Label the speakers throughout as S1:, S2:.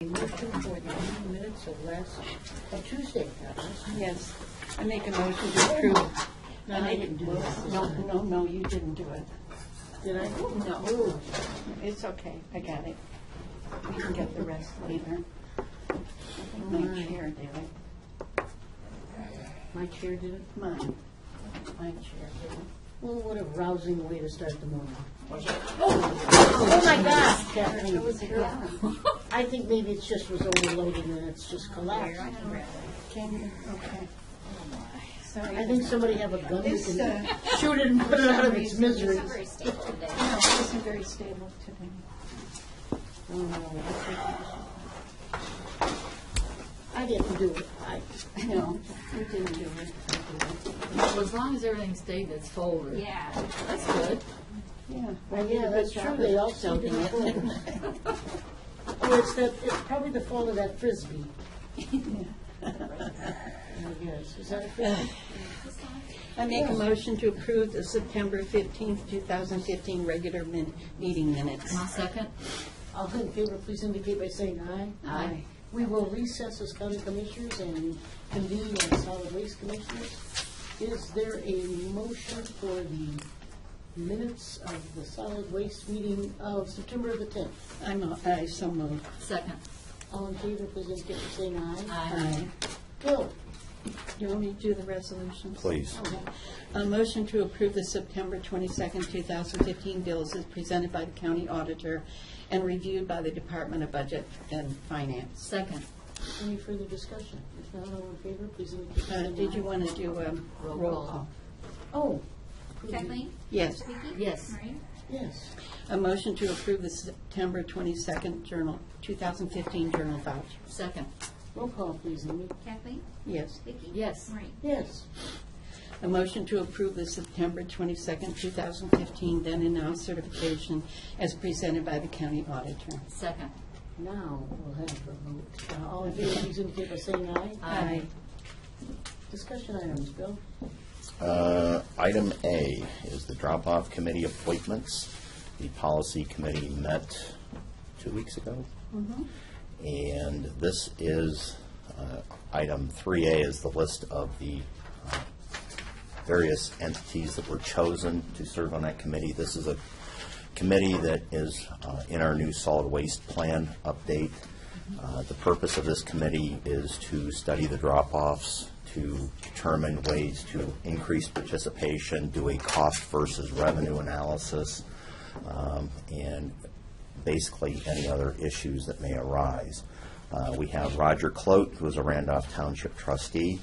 S1: two forty-nine minutes or less, or Tuesday, that was.
S2: Yes, I make a motion to approve.
S1: No, I didn't do that.
S2: No, no, no, you didn't do it.
S1: Did I? Oh,
S2: No,
S1: Ooh,
S2: it's okay, I got it. We can get the rest later. I think my chair did it,
S1: my chair did it.
S2: mine, my chair did it.
S1: Well, what a rousing way to start the morning.
S2: Oh,
S1: my gosh, Kathleen.
S2: It was her.
S1: I think maybe it's just was overloaded and it's just collapsed.
S2: Can, okay. Sorry.
S1: I think somebody have a gun that
S2: This, uh,
S1: can shoot it and put it out of its misery.
S3: Very stable today.
S2: no, it isn't very stable today.
S1: I didn't do it. I,
S2: No, you didn't do it.
S4: Well, as long as everything stayed in its folder.
S3: Yeah.
S4: That's good.
S2: Yeah.
S1: well, yeah, that's true, they all sound in the phone. Oh, it's that, it's probably the fault of that frisbee. Oh, yes, is that a frisbee?
S2: I make a motion to approve the September 15th, 2015 regular min- meeting minutes.
S4: My second?
S1: All in favor, please indicate by saying aye.
S2: Aye.
S1: We will recess as county commissioners and convene as solid waste commissioners. Is there a motion for the minutes of the solid waste meeting of September the tenth?
S2: I'm, a- I so moved.
S4: Second.
S1: All in favor, please indicate by saying aye.
S4: Aye.
S2: Aye.
S1: Bill?
S2: You want me to do the resolutions?
S5: Please.
S2: Okay. A motion to approve the September 22nd, 2015 bills is presented by the county auditor and reviewed by the Department of Budget and Finance.
S4: Second.
S1: Any further discussion? If not, all in favor, please indicate by
S2: Uh,
S1: saying aye.
S2: Did you want to do a
S4: Roll
S2: roll
S4: call.
S2: call?
S1: Oh,
S3: Kathleen?
S2: Yes.
S3: Vicki?
S4: Yes.
S3: Maureen?
S1: yes.
S2: A motion to approve the September 22nd journal, 2015 journal voucher.
S4: Second.
S1: Roll call, please, Amy.
S3: Kathleen?
S2: Yes.
S3: Vicki?
S4: Yes.
S3: Maureen?
S1: Yes.
S2: A motion to approve the September 22nd, 2015 then and now certification as presented by the county auditor.
S4: Second.
S1: Now, we'll have a vote. Uh, All in favor, please indicate by saying aye.
S4: Aye.
S1: Discussion items, Bill?
S5: Uh, Item A is the drop-off committee appointments. The policy committee met two weeks ago. And this is, uh, item 3A is the list of the uh, various entities that were chosen to serve on that committee. This is a committee that is uh, in our new solid waste plan update. Uh, The purpose of this committee is to study the drop-offs, to determine ways to increase participation, do a cost versus revenue analysis, um, and basically any other issues that may arise. Uh, We have Roger Clote, who is a Randolph Township trustee,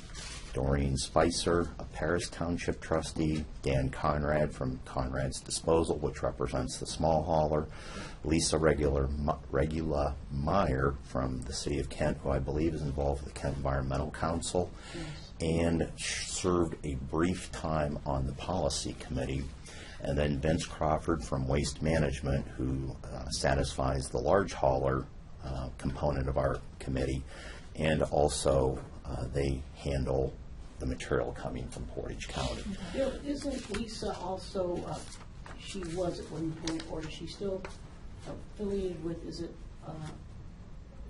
S5: Doreen Spicer, a Paris Township trustee, Dan Conrad from Conrad's Disposal, which represents the small hauler, Lisa Regular, Regula Meyer from the City of Kent, who I believe is involved with the Kent Environmental Council, and sh- served a brief time on the Policy Committee. And then Vince Crawford from Waste Management, who uh, satisfies the large hauler uh, component of our committee. And also, uh, they handle the material coming from Portage County.
S1: Bill, isn't Lisa also, uh, she was at one point, or is she still affiliated with, is it uh,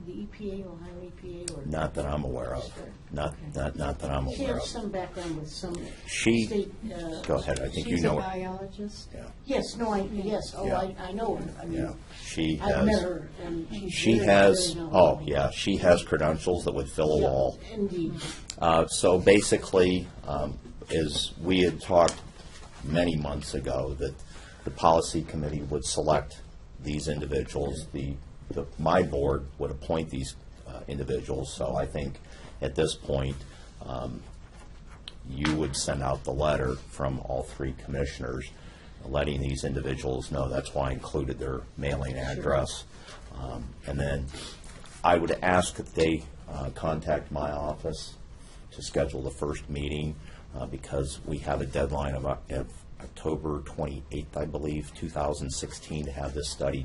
S1: the EPA, Ohio EPA, or?
S5: Not that I'm aware of. Not, not, not that I'm
S1: She
S5: aware
S1: has
S5: of.
S1: some background with some
S5: She-
S1: state. uh,
S5: Go ahead, I think you know
S2: She's a
S5: her.
S2: biologist.
S5: Yeah,
S1: Yes, no, I, yes, oh, I, I know her. I
S5: yeah.
S1: mean,
S5: She
S1: I've met
S5: has,
S1: her, and she's.
S5: she
S1: very,
S5: has,
S1: very
S5: oh,
S1: knowledgeable.
S5: yeah, she has credentials that would fill a
S1: Yeah,
S5: wall.
S1: Indeed.
S5: Uh, So basically, um, is, we had talked many months ago that the policy committee would select these individuals, the, the- my board would appoint these uh, individuals, so I think at this point, um, you would send out the letter from all three commissioners, letting these individuals know, that's why I included their mailing address. Um, And then I would ask that they uh, contact my office to schedule the first meeting, uh, because we have a deadline of Oc- of October 28th, I believe, 2016, to have this study